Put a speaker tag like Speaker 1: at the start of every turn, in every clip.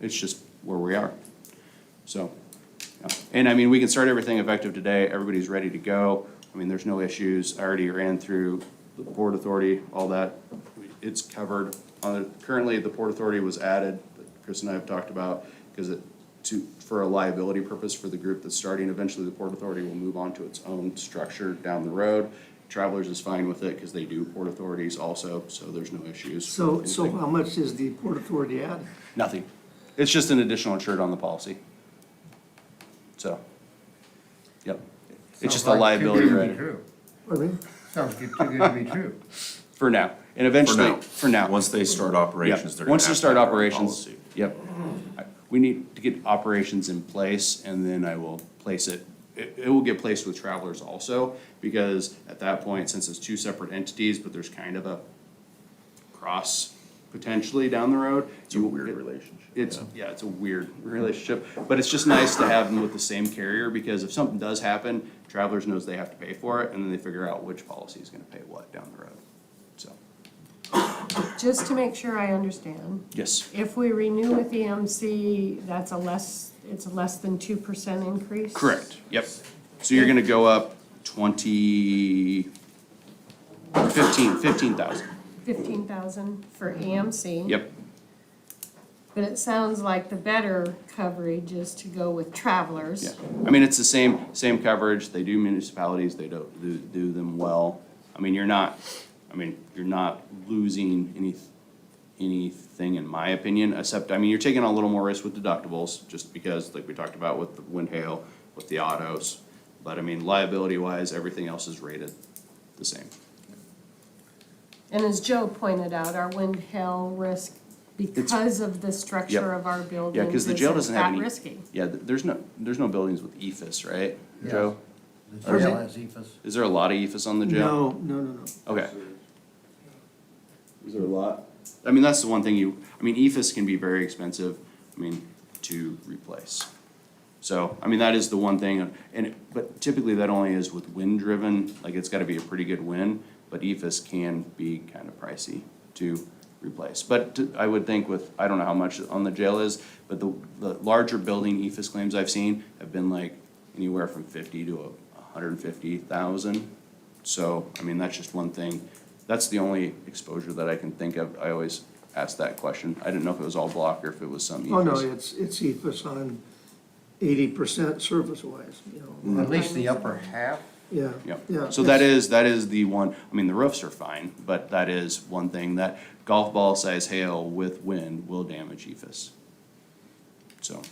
Speaker 1: It's just where we are. So, yeah. and I mean, we can start everything effective today. Everybody's ready to go. I mean, there's no issues. I already ran through the Port Authority, all that. It's covered. Uh, Currently, the Port Authority was added, but Chris and I have talked about, because it, to, for a liability purpose for the group that's starting. Eventually, the Port Authority will move on to its own structure down the road. Travelers is fine with it because they do Port Authorities also, so there's no issues.
Speaker 2: So,
Speaker 1: with
Speaker 2: so
Speaker 1: anything.
Speaker 2: how much is the Port Authority at?
Speaker 1: Nothing. It's just an additional insured on the policy. So, yep. It's just a
Speaker 3: Sounds like too
Speaker 1: liability
Speaker 3: good to be
Speaker 1: rider,
Speaker 3: true.
Speaker 2: Pardon me?
Speaker 3: Sounds good- too good to be true.
Speaker 1: for now. And
Speaker 4: For
Speaker 1: eventually,
Speaker 4: now.
Speaker 1: for now.
Speaker 4: Once they start
Speaker 1: Yeah.
Speaker 4: operations, they're gonna have
Speaker 1: Once
Speaker 4: to.
Speaker 1: they start
Speaker 4: have a
Speaker 1: operations,
Speaker 4: policy.
Speaker 1: yep. I- We need to get operations in place and then I will place it. It, it will get placed with travelers also, because at that point, since it's two separate entities, but there's kind of a cross potentially down the road. It's a weird relationship. It's, yeah, it's a weird relationship, but it's just nice to have them with the same carrier, because if something does happen, travelers knows they have to pay for it, and then they figure out which policy is gonna pay what down the road, so.
Speaker 5: Just to make sure I understand,
Speaker 1: Yes.
Speaker 5: if we renew with EMC, that's a less, it's a less than two percent increase?
Speaker 1: Correct, yep. So you're gonna go up twenty, or fifteen, fifteen thousand,
Speaker 5: Fifteen thousand for EMC?
Speaker 1: yep.
Speaker 5: But it sounds like the better coverage is to go with
Speaker 1: Yeah,
Speaker 5: travelers.
Speaker 1: I mean, it's the same, same coverage, they do municipalities, they do, do, do them well. I mean, you're not, I mean, you're not losing any, anything in my opinion, except, I mean, you're taking on a little more risk with deductibles, just because, like we talked about with the wind hail, with the autos. But I mean, liability wise, everything else is rated the same.
Speaker 5: And as Joe pointed out, our wind hail risk, because of the structure of our buildings,
Speaker 1: Yeah, because the jail
Speaker 5: is
Speaker 1: doesn't have
Speaker 5: that
Speaker 1: any.
Speaker 5: risky.
Speaker 1: Yeah, th- there's no, there's no buildings with E EFS, right,
Speaker 3: Yeah.
Speaker 1: Joe?
Speaker 3: The jail has EFS.
Speaker 1: Is there a lot of E EFS on the jail?
Speaker 2: No, no, no, no.
Speaker 1: Okay. Is there a lot? I mean, that's the one thing you, I mean, EFS can be very expensive, I mean, to replace. So, I mean, that is the one thing, and, it- but typically that only is with wind driven, like it's gotta be a pretty good wind, but E EFS can be kind of pricey to replace. But to- I would think with, I don't know how much on the jail is, but the, the larger building E EFS claims I've seen have been like anywhere from fifty to a hundred and fifty thousand. So, I mean, that's just one thing, that's the only exposure that I can think of, I always ask that question, I didn't know if it was all block or if it was some E EFS.
Speaker 2: Oh, no, it's, it's EFS on eighty percent service-wise, you know.
Speaker 3: At least the upper half.
Speaker 2: Yeah, yeah.
Speaker 1: Yep. So that
Speaker 2: it's-
Speaker 1: is, that is the one, I mean, the roofs are fine, but that is one thing that golf ball size hail with wind will damage EFS. So.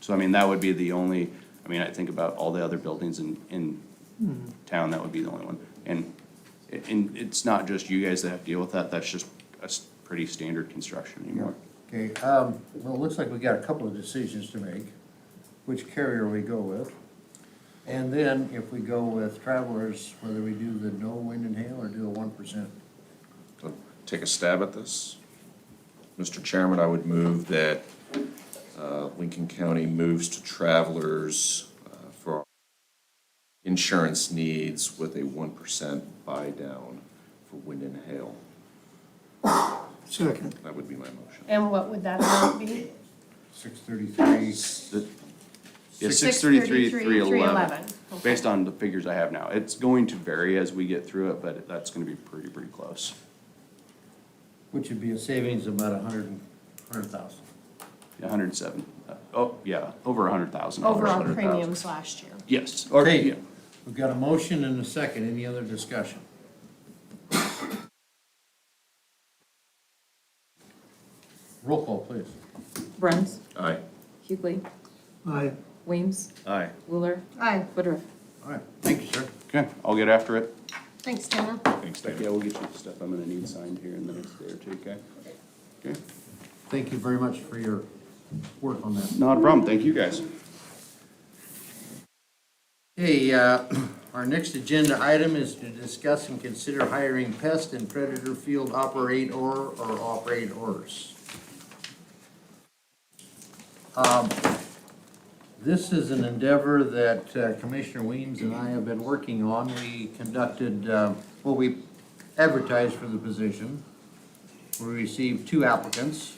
Speaker 1: So I mean, that would be the only, I mean, I think about all the other buildings in, in town, that would be the only one. And, and it's not just you guys that have to deal with that, that's just a s- pretty standard construction anymore.
Speaker 3: Okay, um, well, it looks like we got a couple of decisions to make, which carrier we go with. And then if we go with travelers, whether we do the no wind and hail or do a one percent.
Speaker 4: So, Take a stab at this. Mr. Chairman, I would move that uh, Lincoln County moves to travelers uh, for insurance needs with a one percent buy-down for wind and hail.
Speaker 2: Second,
Speaker 4: That would be my motion.
Speaker 5: And what would that amount be?
Speaker 3: Six thirty-three,
Speaker 1: Yeah,
Speaker 5: Six
Speaker 1: six
Speaker 5: thirty-three,
Speaker 1: thirty-three,
Speaker 5: three eleven. Okay.
Speaker 1: based on the figures I have now. It's going to vary as we get through it, but that's gonna be pretty, pretty close.
Speaker 3: which would be a savings of about a hundred and, hundred thousand.
Speaker 1: A hundred and seven, Uh, oh, yeah, over a hundred thousand.
Speaker 5: Overall premiums last year.
Speaker 1: Yes, or, yeah,
Speaker 3: Okay, we've got a motion and a second. Any other discussion? Roll call, please.
Speaker 6: Bruns,
Speaker 4: Aye.
Speaker 6: Hughley,
Speaker 2: I,
Speaker 6: Weems,
Speaker 4: Aye.
Speaker 6: Wheeler,
Speaker 5: Aye,
Speaker 6: Woodruff.
Speaker 3: All right, thank you, sir.
Speaker 1: okay, I'll get after it.
Speaker 5: thanks, Dana.
Speaker 4: Thanks, David.
Speaker 1: Yeah, we'll get you the stuff I'm gonna need signed here in the next day or two, okay? Okay,
Speaker 3: Thank you very much for your work on that.
Speaker 1: not a problem, thank you guys.
Speaker 3: Hey, uh, our next agenda item is to discuss and consider hiring pest and predator field operator or operators. Um, This is an endeavor that uh, Commissioner Weems and I have been working on. We conducted, uh, well, we advertised for the position. We received two applicants.